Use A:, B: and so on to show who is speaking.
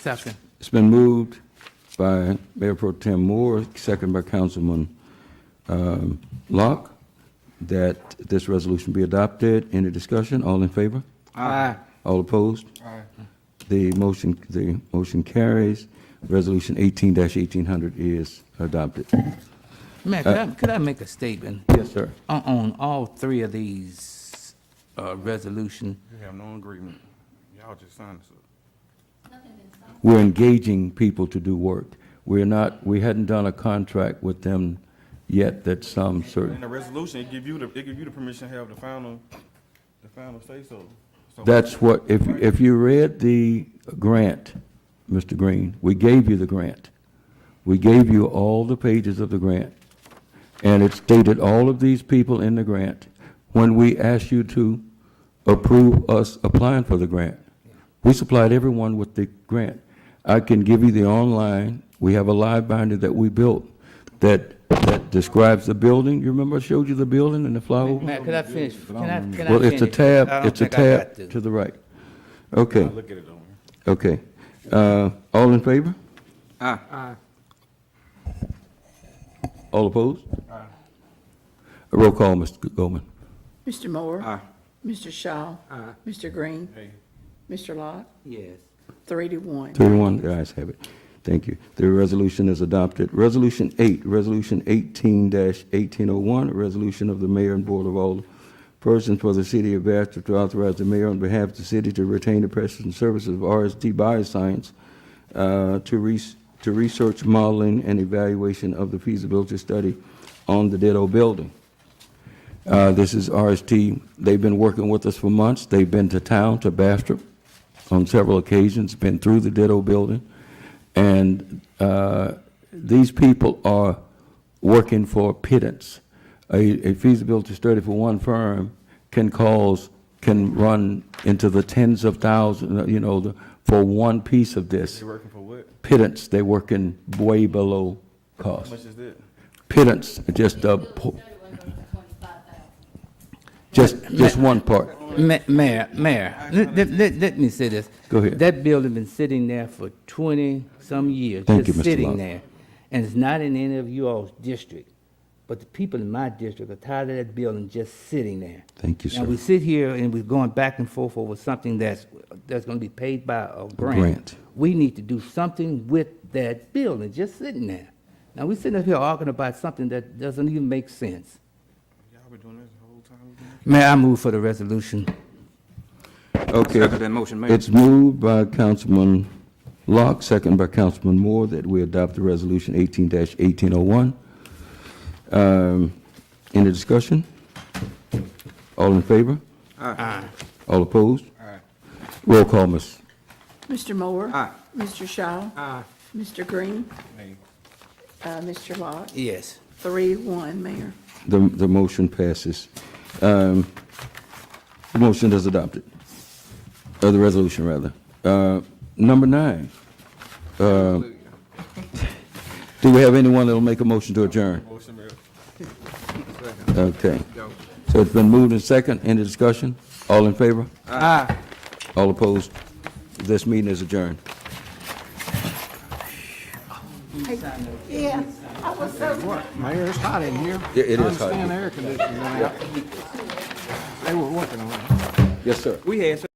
A: Second.
B: It's been moved by Mayor Pro Tem Moore, second by Councilman um, Locke, that this resolution be adopted. Any discussion? All in favor?
A: Aye.
B: All opposed? The motion, the motion carries. Resolution eighteen eighteen hundred is adopted.
A: Mayor,
B: Uh,
A: could I, could I make a statement
B: Yes, sir.
A: on, on all three of these, uh, resolution?
C: You have no agreement. Y'all just signed this up.
B: We're engaging people to do work. We're not, we hadn't done a contract with them yet that some
C: In
B: certain,
C: the resolution, it give you the, it give you the permission to have the final, the final say so. So-
B: that's what, if, if you read the grant, Mr. Green, we gave you the grant. We gave you all the pages of the grant. And it stated all of these people in the grant when we asked you to approve us applying for the grant. We supplied everyone with the grant. I can give you the online, we have a live binder that we built that, that describes the building. You remember I showed you the building and the flyover?
A: Mayor, could I finish? Can I, can I finish?
B: Well, it's a
A: I
B: tab,
A: don't
B: it's a
A: think I got
B: tab to the right. Okay,
C: Look at it on here.
B: okay. Uh, all in favor? Aye. All opposed? Aye. Roll call, Mr. Goldman.
D: Mr. Moore? Mr. Shaw? Mr. Green? Mr. Locke?
A: Yes.
D: Three to one.
B: 31, the ayes have it. Thank you. The resolution is adopted. Resolution 8, Resolution 18-1801, a resolution of the mayor and board of all persons for the city of Bastrop to authorize the mayor on behalf of the city to retain the practice and services of RST Bioscience uh, to res- to research modeling and evaluation of the feasibility study on the Ditto building. Uh, This is RST. They've been working with us for months. They've been to town, to Bastrop, on several occasions, been through the Ditto building. And uh, these people are working for pittance. A a feasibility study for one firm can cause, can run into the tens of thousands, uh, you know, the- for one piece of this.
C: They working for what?
B: Pittance, they're working way below
C: How
B: cost.
C: much is that?
B: Pittance, just a, po- just, just one part.
A: Ma- Mayor, Mayor, let, let- let- let me say this.
B: Go ahead.
A: That building been sitting there for twenty-some years.
B: Thank
A: just
B: you, Mr.
A: Sitting
B: Love.
A: there, and it's not in any of you all's district, but the people in my district are tired of that building just sitting there.
B: Thank you,
A: And
B: sir.
A: we sit here and we're going back and forth over something that's, that's gonna be paid by a grant.
B: grant.
A: We need to do something with that building, just sitting there. Now, we sitting up here arguing about something that doesn't even make sense.
C: Y'all been doing this the whole time?
A: May I move for the resolution?
B: Okay. It's moved by Councilman Locke, second by Councilman Moore, that we adopt the resolution eighteen eighteen oh one. Um, any discussion? All in favor? Aye. All opposed? Aye. Roll call, Ms.
D: Mr. Moore? Mr. Shaw? Mr. Green? Uh, Mr. Locke?
A: Yes.
D: Three to one, Mayor.
B: The, the motion passes. Um, The motion is adopted, or the resolution, rather. Uh, Number nine. uh, Do we have anyone that'll make a motion to adjourn?
C: Motion, Mayor.
B: Okay. So it's been moved and second, any discussion? All in favor? Aye. All opposed? This meeting is adjourned.
D: Yeah, I was so
E: Mayor, it's hot in here.
B: It- it is hot.
E: I understand the air conditioning went out. They were working on it.
B: Yes, sir.